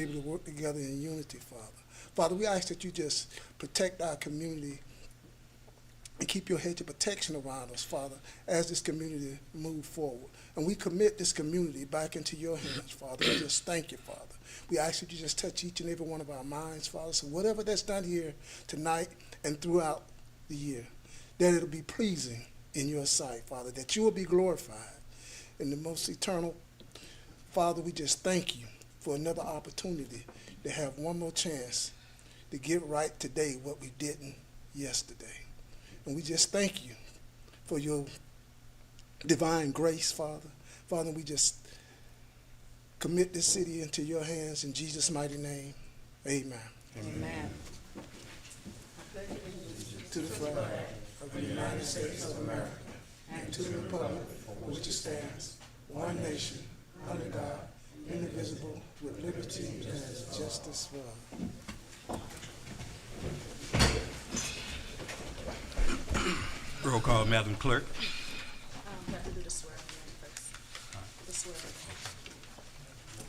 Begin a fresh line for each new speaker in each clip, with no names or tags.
able to work together in unity, Father. Father, we ask that you just protect our community and keep your hedge of protection around us, Father, as this community move forward. And we commit this community back into your hands, Father. We just thank you, Father. We ask that you just touch each and every one of our minds, Father. So whatever that's done here tonight and throughout the year, that it'll be pleasing in your sight, Father, that you will be glorified in the most eternal Father, we just thank you for another opportunity to have one more chance to get right today what we didn't yesterday. And we just thank you for your divine grace, Father. Father, we just commit this city into your hands in Jesus' mighty name. Amen.
Amen.
To the flag of the United States of America and to the republic for which it stands, one nation, under God, indivisible, with liberty and justice for all.
Roll call, Madam Clerk.
Um, we have to do the swearing in first. The swearing. in.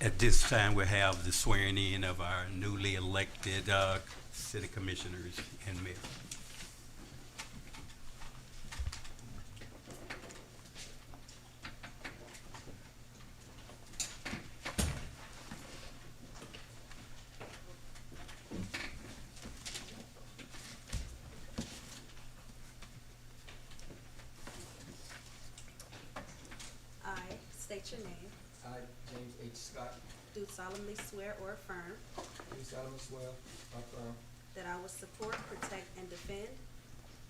At this time, we have the swearing in of our newly elected uh, city commissioners and mayor.
I state your name,
I, James H. Scott,
do solemnly swear or affirm
do solemnly swear, affirm,
that I will support, protect, and defend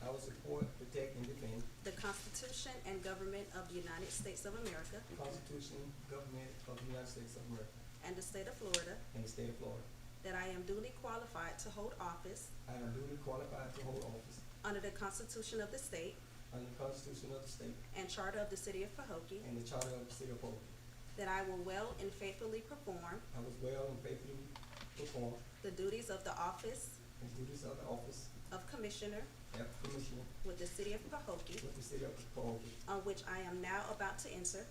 I will support, protect, and defend
the Constitution and government of the United States of America
the Constitution, government of the United States of America,
and the state of Florida,
and the state of Florida.
that I am duly qualified to hold office
I am duly qualified to hold office
under the Constitution of the state
under the Constitution of the state
and charter of the city of Pahokee,
and the charter of the city of Fulton.
that I will well and faithfully perform
I was well and faithfully perform
the duties of the office
the duties of the office
of Commissioner
as Commissioner
with the city of Pahokee,
with the city of Fulton,
on which I am now about to enter,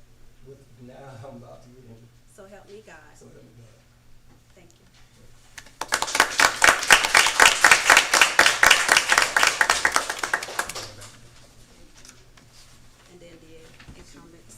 with now I'm about to get into,
so help me God.
so help me God.
Thank you. And then the incumbents.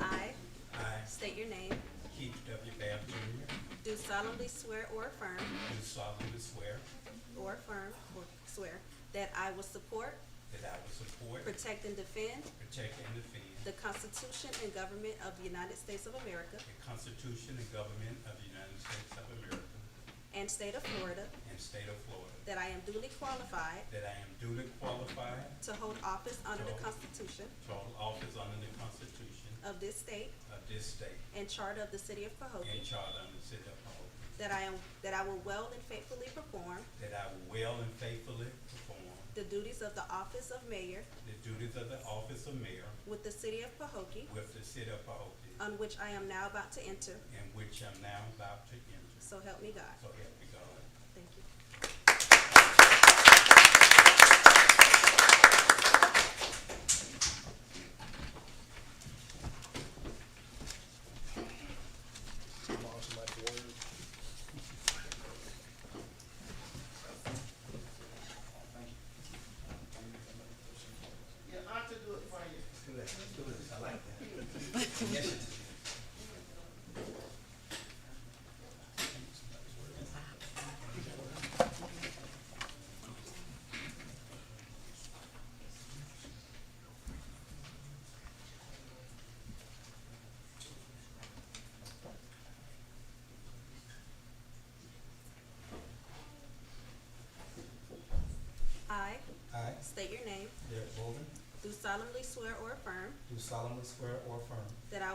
I
I,
state your name,
Keith W. Babb Jr.,
do solemnly swear or affirm,
do solemnly swear
or affirm, or swear, that I will support,
that I will support,
protect, and defend
protect, and defend
the Constitution and government of the United States of America
the Constitution and government of the United States of America
and state of Florida,
and state of Florida,
that I am duly qualified
that I am duly qualified
to hold office under the Constitution
to hold office under the Constitution
of this state
of this state
and charter of the city of
and
Pahokee,
charter of the city of Hoboken,
that I am, that I will well and faithfully perform
that I will well and faithfully perform
the duties of the office of mayor
the duties of the office of mayor
with the city of Pahokee,
with the city of Hoboken,
on which I am now about to enter,
in which I'm now about to enter.
so help me God.
So help me God.
Thank you. I
I,
state your name,
Derek Bolden,
do
solemnly swear or affirm
do solemnly swear or affirm
that I